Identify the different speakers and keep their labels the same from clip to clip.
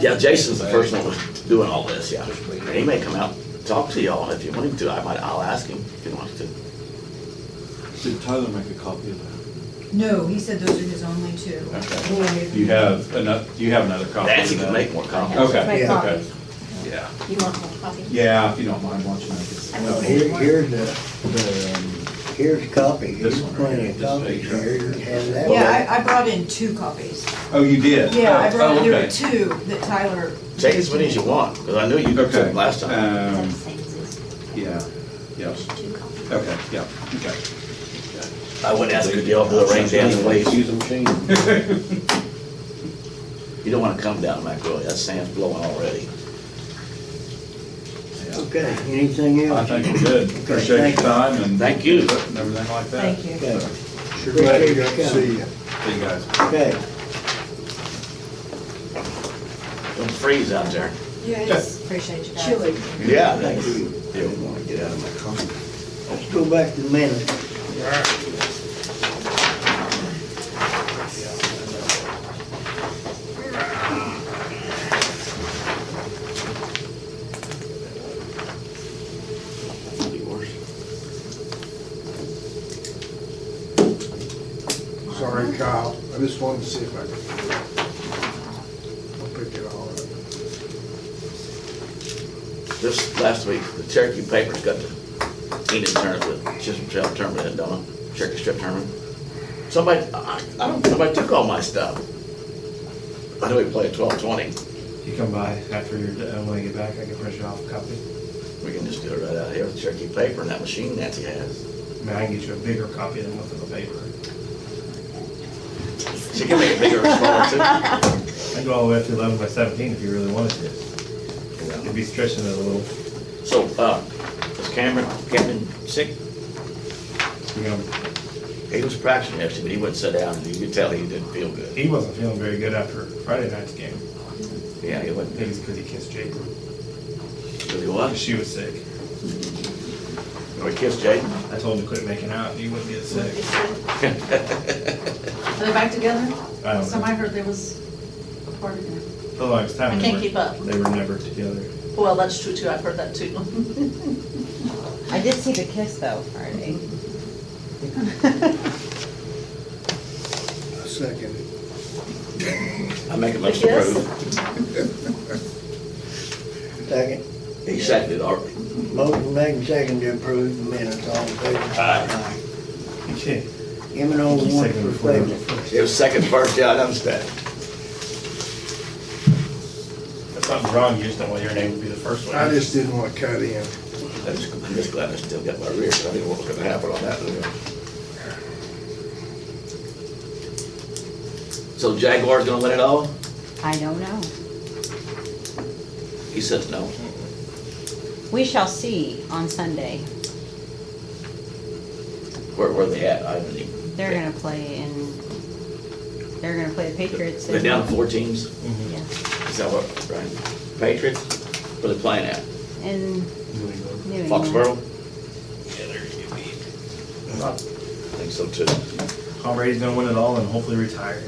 Speaker 1: Yeah, Jason's the first one doing all this, yeah. And he may come out, and talk to y'all if you want him to. I might, I'll ask him if he wants to.
Speaker 2: Did Tyler make a copy of
Speaker 3: No, he said those are his only two.
Speaker 2: Okay. Do you have enough, do you have another copy?
Speaker 1: Nancy
Speaker 2: of
Speaker 1: can
Speaker 2: that?
Speaker 1: make more copies.
Speaker 2: Okay,
Speaker 4: Make
Speaker 2: okay.
Speaker 4: copies.
Speaker 2: Yeah,
Speaker 4: You want one copy?
Speaker 2: yeah, if you don't mind watching that.
Speaker 4: I
Speaker 5: Well, here, here's the, the, um, here's copy,
Speaker 2: This
Speaker 5: here's
Speaker 2: one right
Speaker 5: plenty
Speaker 2: here,
Speaker 5: of
Speaker 2: this
Speaker 5: copies
Speaker 2: page right
Speaker 5: here, you can have that.
Speaker 3: Yeah, I, I brought in two copies.
Speaker 2: Oh, you did?
Speaker 3: Yeah, I
Speaker 2: Oh,
Speaker 3: brought, there
Speaker 2: okay.
Speaker 3: were two that Tyler.
Speaker 1: Take as many as you want, because I knew you took
Speaker 2: Okay.
Speaker 1: them last time.
Speaker 4: Is that the
Speaker 2: Um,
Speaker 4: same as this?
Speaker 2: yeah, yes,
Speaker 4: Two copies.
Speaker 2: okay, yeah, okay.
Speaker 1: I would ask if y'all do a rain dance, please.
Speaker 6: Use a machine.
Speaker 1: You don't want to come down Mac Road. That sand's blowing already.
Speaker 2: Yeah.
Speaker 5: Okay, anything
Speaker 2: I
Speaker 5: else?
Speaker 2: think we're good. Appreciate
Speaker 5: thank
Speaker 2: your
Speaker 5: you.
Speaker 2: time and.
Speaker 1: Thank you.
Speaker 2: And everything like that.
Speaker 3: Thank you.
Speaker 5: Okay,
Speaker 6: Sure
Speaker 5: glad
Speaker 6: glad
Speaker 5: you
Speaker 6: you
Speaker 5: could
Speaker 6: see you.
Speaker 2: See you guys.
Speaker 5: okay.
Speaker 1: Don't freeze out there.
Speaker 3: Yes. Appreciate you guys.
Speaker 4: Chili.
Speaker 1: Yeah,
Speaker 5: Thank
Speaker 1: thanks.
Speaker 5: you.
Speaker 1: Yeah, we want to get out of my car.
Speaker 5: Let's go back to the minutes.
Speaker 6: Sorry, Kyle. I just wanted to see if I could. I'll pick it all up.
Speaker 1: This last week, the Cherokee papers got the Enid Turner, the Chisholm Trail tournament in Donna, Cherokee Strip tournament. Somebody, I, I don't, somebody took all my stuff. I know we play at twelve twenty.
Speaker 7: You come by after you're, done, when I get back, I can print you off a copy.
Speaker 1: We can just do it right out here with Cherokee paper and that machine Nancy has.
Speaker 7: I mean, I can get you a bigger copy than what's in the paper.
Speaker 1: She can make it bigger or smaller too.
Speaker 7: I can go all the way up to eleven by seventeen if you really wanted to. You'd be stretching it a little.
Speaker 1: So, uh, is Cameron, Cameron sick?
Speaker 7: You know,
Speaker 1: He was practicing yesterday, but he wouldn't sit down and you could tell he didn't feel good.
Speaker 7: he wasn't feeling very good after Friday night's game.
Speaker 1: Yeah, he
Speaker 7: I
Speaker 1: wouldn't.
Speaker 7: think it's because he kissed Jaden.
Speaker 1: He was.
Speaker 7: She was sick.
Speaker 1: We kissed Jaden.
Speaker 7: I told him to quit making out, and he wouldn't get sick.
Speaker 4: Are they back together?
Speaker 7: I don't
Speaker 4: Somebody
Speaker 7: know.
Speaker 4: heard there was a part of it.
Speaker 7: The longest time.
Speaker 4: I
Speaker 7: they
Speaker 4: can't
Speaker 7: were-
Speaker 4: keep up.
Speaker 7: They were never together.
Speaker 4: Well, that's true too. I've heard that too.
Speaker 8: I did see the kiss though, Friday.
Speaker 6: I second it.
Speaker 1: I make a motion to
Speaker 4: Yes.
Speaker 1: approve.
Speaker 5: Second,
Speaker 1: He seconded already.
Speaker 5: motion made and second to approve the minutes, all in favor?
Speaker 1: Aye.
Speaker 7: You can't.
Speaker 5: M and O
Speaker 7: Just
Speaker 5: one
Speaker 7: second
Speaker 5: for
Speaker 7: before that.
Speaker 5: favor.
Speaker 1: It was second first, yeah, I understand.
Speaker 7: That's not wrong, you just don't want your name to be the first one.
Speaker 6: I just didn't want to cut in.
Speaker 1: I'm just, I'm just glad I still got my rear, 'cause I didn't know what was gonna happen on that. So Jaguar's gonna win it all?
Speaker 8: I don't know.
Speaker 1: He says no.
Speaker 8: We shall see on Sunday.
Speaker 1: Where, where they at? I haven't even.
Speaker 8: They're gonna play in, they're gonna play the Patriots.
Speaker 1: They're
Speaker 8: in-
Speaker 1: down four teams?
Speaker 8: Yeah.
Speaker 1: Is that what, right? Patriots? Where they playing at?
Speaker 8: In
Speaker 7: Anyway,
Speaker 8: New England.
Speaker 1: Foxborough? Yeah, they're gonna be. I think so too.
Speaker 7: Tom Brady's gonna win it all and hopefully retire.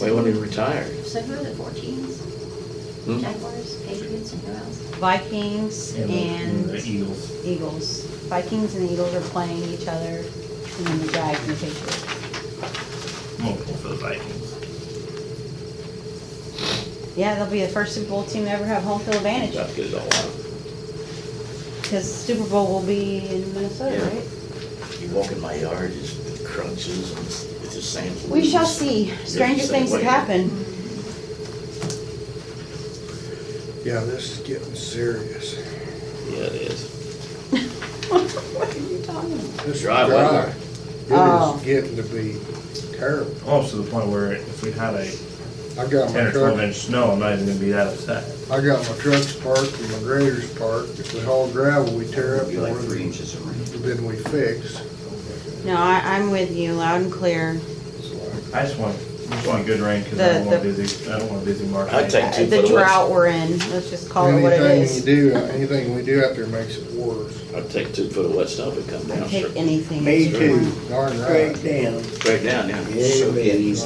Speaker 1: Wait, when he retired?
Speaker 4: So who are the four teams?
Speaker 1: Hmm?
Speaker 4: Jaguars, Patriots, and who else?
Speaker 8: Vikings
Speaker 7: the- The
Speaker 8: and
Speaker 7: Eagles.
Speaker 8: Eagles. Vikings and Eagles are playing each other, and then the Jags and the Patriots.
Speaker 7: I'm gonna pull for the Vikings.
Speaker 8: Yeah, they'll be the first Super Bowl team to ever have home field advantage,
Speaker 1: Got to get it all out.
Speaker 8: because Super Bowl will be in Minnesota,
Speaker 1: Yeah.
Speaker 8: right?
Speaker 1: You walk in my yard, it just crunches and it's it's just sand.
Speaker 8: We shall
Speaker 1: fleas.
Speaker 8: see. Stranger
Speaker 1: Same
Speaker 8: things have
Speaker 1: way.
Speaker 8: happened.
Speaker 6: Yeah, this is getting serious.
Speaker 1: Yeah, it is.
Speaker 8: What are you talking about?
Speaker 6: This is
Speaker 1: Dry
Speaker 6: dry.
Speaker 1: weather.
Speaker 8: Oh.
Speaker 6: It is getting to be terrible.
Speaker 7: Almost Oh, to the point where if we had a
Speaker 6: I got
Speaker 7: ten
Speaker 6: my
Speaker 7: or twelve
Speaker 6: truck,
Speaker 7: inch snow, I'm not even gonna be that upset.
Speaker 6: I got my trucks parked and my graders parked. If we haul gravel, we tear up
Speaker 2: Be like three
Speaker 6: more
Speaker 2: inches of rain.
Speaker 6: than we fix.
Speaker 8: No, I, I'm with you, loud and clear.
Speaker 6: It's like,
Speaker 7: I just want, just want good rain, cause I don't
Speaker 8: The-
Speaker 7: want
Speaker 8: the-
Speaker 7: busy, I don't want busy market.
Speaker 1: I'd take two
Speaker 8: The
Speaker 1: foot of
Speaker 8: drought
Speaker 1: woods.
Speaker 8: we're in, let's just call it what it
Speaker 6: Anything you
Speaker 8: is.
Speaker 6: do, anything we do out there makes it worse.
Speaker 1: I'd take two foot of wet snow if it come down.
Speaker 8: Take
Speaker 1: Sure.
Speaker 8: anything.
Speaker 5: Me too,
Speaker 6: Darn right.
Speaker 5: straight down.
Speaker 1: Right down, yeah.
Speaker 5: Yeah, it is.